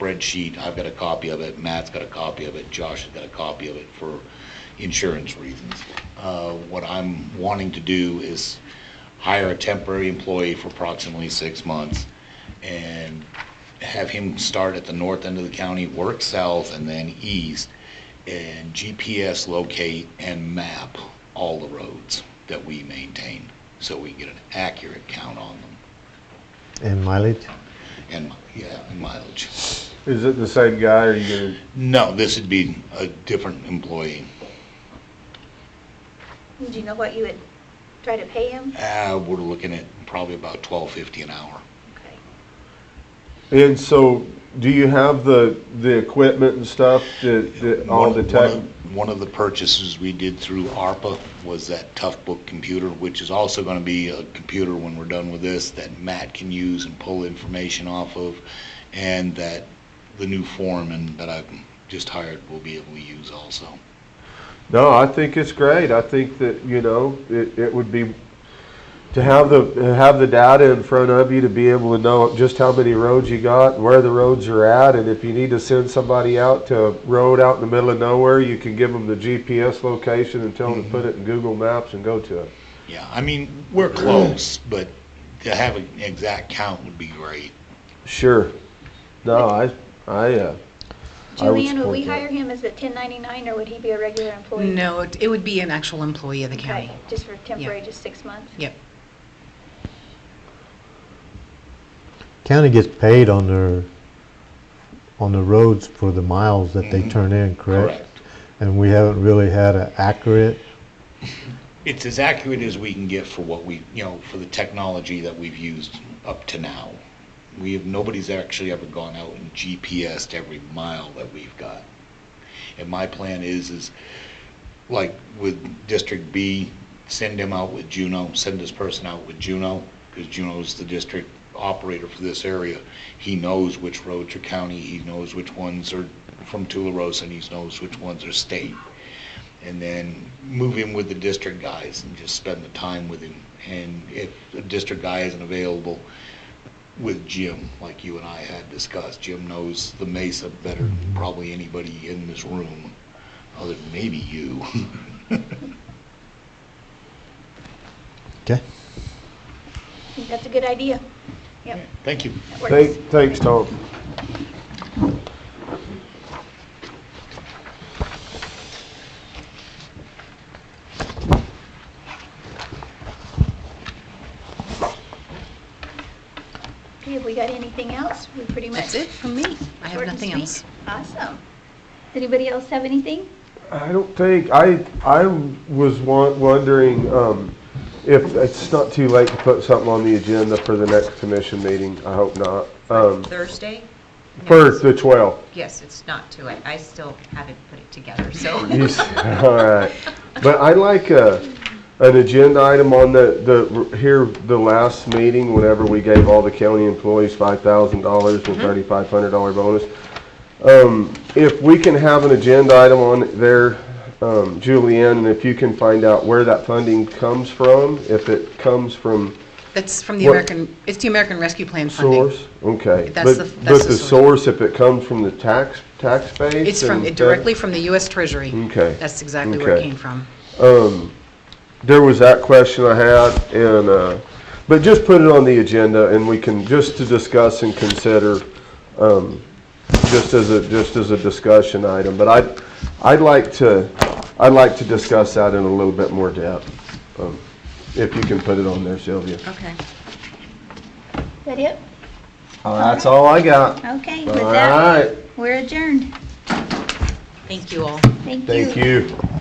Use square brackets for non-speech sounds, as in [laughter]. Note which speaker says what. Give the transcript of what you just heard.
Speaker 1: spreadsheet, I've got a copy of it, Matt's got a copy of it, Josh has got a copy of it for insurance reasons. Uh, What I'm wanting to do is hire a temporary employee for approximately six months and have him start at the north end of the county, work south and then east, and GPS locate and map all the roads that we maintain, so we get an accurate count on them,
Speaker 2: And mileage?
Speaker 1: and, yeah, and mileage.
Speaker 3: Is it the same guy, or you gonna?
Speaker 1: No, this would be a different employee.
Speaker 4: Do you know what you would try to pay him?
Speaker 1: Uh, we're looking at probably about twelve fifty an hour.
Speaker 4: Okay.
Speaker 3: And so, do you have the, the equipment and stuff that, that all
Speaker 1: One-
Speaker 3: the
Speaker 1: one
Speaker 3: tech?
Speaker 1: of- One of the purchases we did through ARPA was that Tough Book computer, which is also gonna be a computer when we're done with this that Matt can use and pull information off of, and that the new foreman that I've just hired will be able to use also.
Speaker 3: No, I think it's great. I think that, you know, it, it would be, to have the, to have the data in front of you to be able to know just how many roads you got, where the roads are at, and if you need to send somebody out to a road out in the middle of nowhere, you can give them the GPS location and tell them to put it in Google Maps and go to it.
Speaker 1: Yeah, I mean, we're close, but to have an exact count would be great.
Speaker 3: Sure. No, I, I, uh, I would
Speaker 4: Julianne, would we
Speaker 3: support that.
Speaker 4: hire him as a 1099, or would he be a regular employee?
Speaker 5: No, it it would be an actual employee of the county.
Speaker 4: Okay, just for temporary, just six months?
Speaker 5: Yep.
Speaker 2: County gets paid on their, on the roads for the miles that they turn in, correct? And we haven't really had an accurate,
Speaker 1: It's as accurate as we can get for what we, you know, for the technology that we've used up to now. We have, nobody's actually ever gone out and GPSed every mile that we've got. And my plan is, is like with District B, send him out with Juno, send this person out with Juno, because Juno's the district operator for this area. He knows which roads are county, he knows which ones are from Tularosa, and he knows which ones are state and then move him with the district guys and just spend the time with him. And if the district guy isn't available, with Jim, like you and I had discussed, Jim knows the Mesa better than probably anybody in this room, other than maybe you. [laughs]
Speaker 2: okay?
Speaker 4: I think That's a good idea. Yep,
Speaker 1: Thank you.
Speaker 4: that
Speaker 3: Thank,
Speaker 4: works.
Speaker 3: thanks, Tom.
Speaker 4: Okay, have we got anything else? We pretty much.
Speaker 5: That's it from me. I have
Speaker 4: short and
Speaker 5: nothing
Speaker 4: sweet.
Speaker 5: else.
Speaker 4: Awesome. Does anybody else have anything?
Speaker 3: I don't think, I, I was wa- wondering, um, if it's not too late to put something on the agenda for the next commission meeting, I hope not. Um,
Speaker 6: Thursday?
Speaker 3: for the twelve.
Speaker 6: Yes, it's not too late. I still haven't put it together, so.
Speaker 3: You s- [laughs] All right. But I like a, an agenda item on the, the, here, the last meeting, whenever we gave all the county employees five thousand dollars
Speaker 5: Mm-hmm.
Speaker 3: and thirty-five hundred dollar bonus. Um, if we can have an agenda item on there, um, Julianne, and if you can find out where that funding comes from, if it comes from
Speaker 5: [laughs] That's from the
Speaker 3: What-
Speaker 5: American, it's the American Rescue Plan funding.
Speaker 3: source, okay.
Speaker 5: That's
Speaker 3: But-
Speaker 5: the- that's
Speaker 3: But
Speaker 5: the
Speaker 3: the source, if it comes from the tax, tax base?
Speaker 5: It's from,
Speaker 3: and
Speaker 5: it
Speaker 3: that-
Speaker 5: directly from the US Treasury.
Speaker 3: Okay.
Speaker 5: That's exactly where it
Speaker 3: Okay.
Speaker 5: came from.
Speaker 3: Um, there was that question I had, and, uh, but just put it on the agenda, and we can, just to discuss and consider, um, just as a, just as a discussion item, but I'd, I'd like to, I'd like to discuss that in a little bit more depth, um, if you can put it on there, Sylvia.
Speaker 5: Okay.
Speaker 4: Is that it?
Speaker 3: That's all I got.
Speaker 4: Okay,
Speaker 3: All
Speaker 4: with that,
Speaker 3: right,
Speaker 4: we're adjourned.
Speaker 5: Thank you all.
Speaker 4: Thank you.
Speaker 3: thank you.